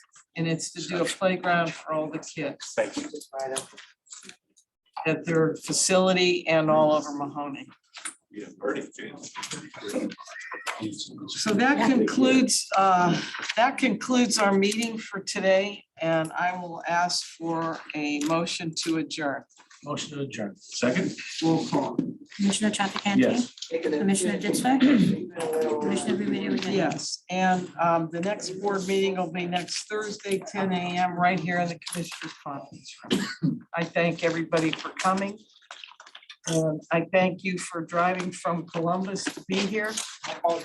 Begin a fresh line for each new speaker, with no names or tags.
and it's to do a playground for all the kids
Thank you.
at their facility and all over Mahoney.
Yeah, Bernie.
So that concludes, uh, that concludes our meeting for today, and I will ask for a motion to adjourn.
Motion to adjourn. Second?
Roll call.
Commissioner Trafficante, Commissioner Ditzler, Commissioner Remedy Agati,
Yes, and um, the next board meeting will be next Thursday, ten AM, right here in the Commissioners Conference Room. I thank everybody for coming. And I thank you for driving from Columbus to be here.